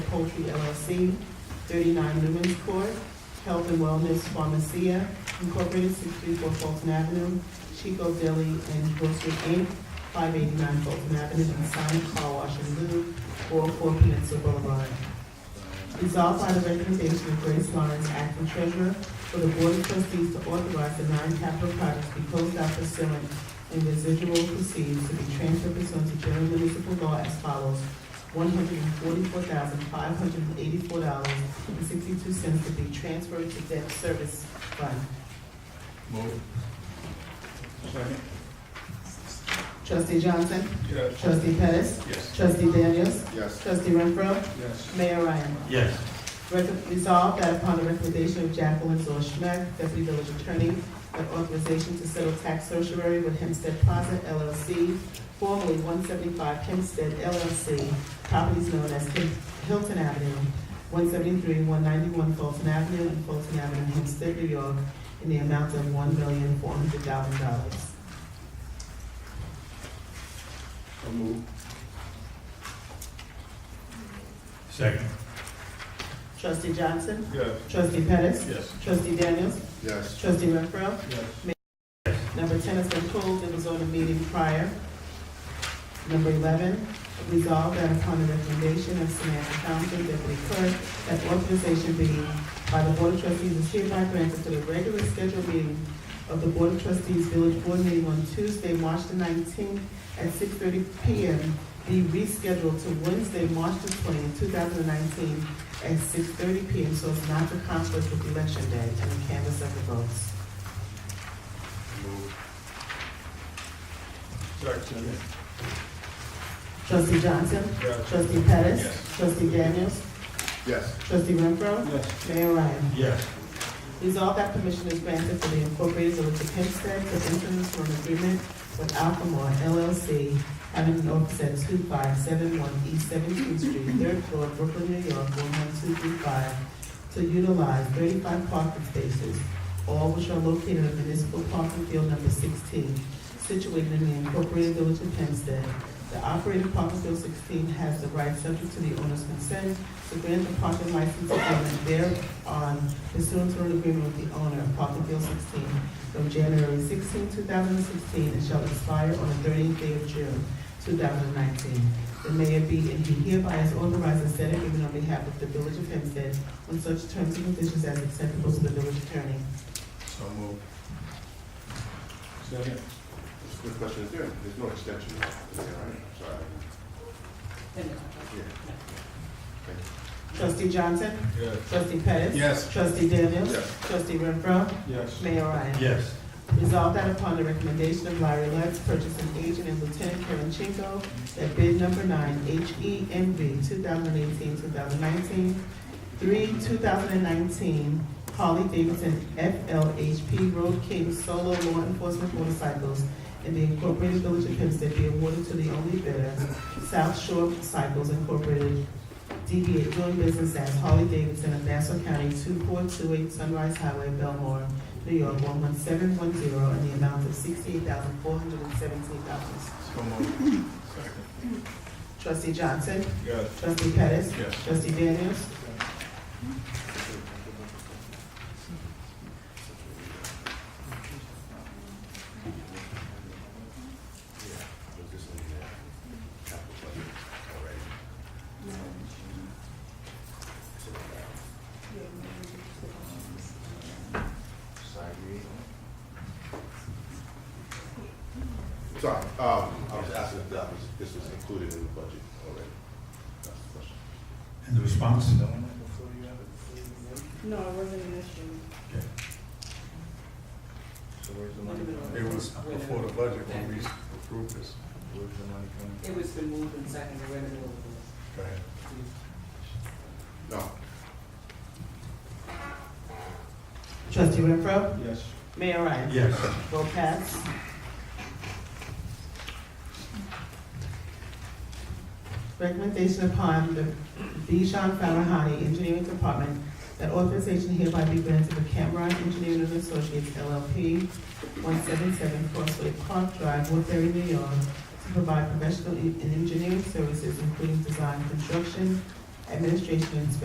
Poultry LLC, 39 Newman's Court, Health and Wellness Pharmacia Incorporated, 634 Fulton Avenue, Chico Deli and Grocery Inc., 589 Fulton Avenue, and Sonic Car Wash and Lube, 404 Peninsula Boulevard. Resolved by the recommendation of Grace Lawrence, acting treasurer, for the board of trustees to authorize the nine capital projects to be closed out pursuant and residual proceeds to be transferred pursuant to general municipal law as follows. One hundred and forty-four thousand, five hundred and eighty-four dollars and sixty-two cents to be transferred to debt service fund. Move. Second. Trustee Johnson? Yes. Trustee Pettis? Yes. Trustee Daniels? Yes. Trustee Renfro? Yes. Mayor Ryan? yes, Recom- Resolved that upon the recommendation of Jacqueline Zor Schmack, Deputy Village Attorney, that authorization to settle tax certiorari with Hempstead Plaza LLC, formerly one seventy-five Hempstead LLC, properties known as Hil- Hilton Avenue, one seventy-three, one ninety-one Fulton Avenue, and Fulton Avenue, Hempstead, New York, in the amount of one million, four hundred thousand dollars. So move. second, Trustee Johnson? Yes. Trustee Pettis? Yes. Trustee Daniels? Yes. Trustee Renfro? Yes. Number ten has been pulled, it was on the meeting prior. Number eleven, resolved that upon the recommendation of Samantha Thompson, Deputy Clerk, that authorization be by the Board of Trustees is hereby granted to the regular scheduled meeting of the Board of Trustees Village Board meeting on Tuesday, March the nineteenth at six thirty P M. Be rescheduled to Wednesday, March the twentieth, two thousand and nineteen, at six thirty P M, so as not to conflict with Election Day and the canvas of the votes. Move. Second. Trustee Johnson? Yes. Trustee Pettis? Yes. Trustee Daniels? Yes. Trustee Renfro? Yes. Mayor Ryan? yes, Resolved that permission is granted for the Incorporated Village of Hempstead to enter into an agreement with Alphamore LLC, having an office at two five seven one East Seventeenth Street, third floor, Brooklyn, New York, one one two three five, to utilize thirty-five parking spaces, all which are located in municipal parking field number sixteen, situated in the Incorporated Village of Hempstead. The operator of parking field sixteen has the right, subject to the owner's consent, to grant the parking license agreement thereon pursuant to an agreement with the owner of Parkland Field 16 from January 16, 2016, and shall expire on the 30th day of June, 2019. The mayor be and he hereby is authorized to set agreement on behalf of the Village of Hempstead on such terms and conditions as acceptable to the village attorney. So move. Second. Just a quick question, is there, there's no extension, is there, right? Sorry. Yeah. Thank you. Trustee Johnson? Yes. Trustee Pettis? Yes. Trustee Daniels? Yes. Trustee Renfro? Yes. Mayor Ryan? yes, Resolved that upon the recommendation of Larry Lutz, purchasing agent and Lieutenant Kevin Chinko, that bid number nine, E HEMV 2018-2019, three 2019 Harley Davidson FLHP Road King Solo Law Enforcement Motorcycles in the Incorporated Village of Hempstead be awarded to the only bidder, South Shore Cycles Incorporated, DBA doing business as Harley Davidson of Nassau County 2428 Sunrise Highway, Belmore, New York, one one seven one zero, in the amount of sixty-eight thousand, four hundred and seventeen dollars. So move. Second. Trustee Johnson? Yes. Trustee Pettis? Yes. Trustee Daniels? Yeah, was this in the uh, capital budget already? It's in the, uh, Side read. Sorry, um, I was asking if that was, this was included in the budget already. That's the question. and the response? No, it wasn't an issue. So where's the money coming It was before the budget when we approved this. Where's the money coming? It was been moved and seconded, we're in the middle of this. Go ahead. No, Trustee Renfro? Yes. Mayor Ryan? Yes, Vote pass. Recommendation upon the Bijan Farahani Engineering Department that authorization hereby be granted to Cameron Engineering and Associates LLP, one seven seven Crossway Park Drive, Woodbury, New York, to provide professional e- and engineering services including design, construction, Administration and Inspection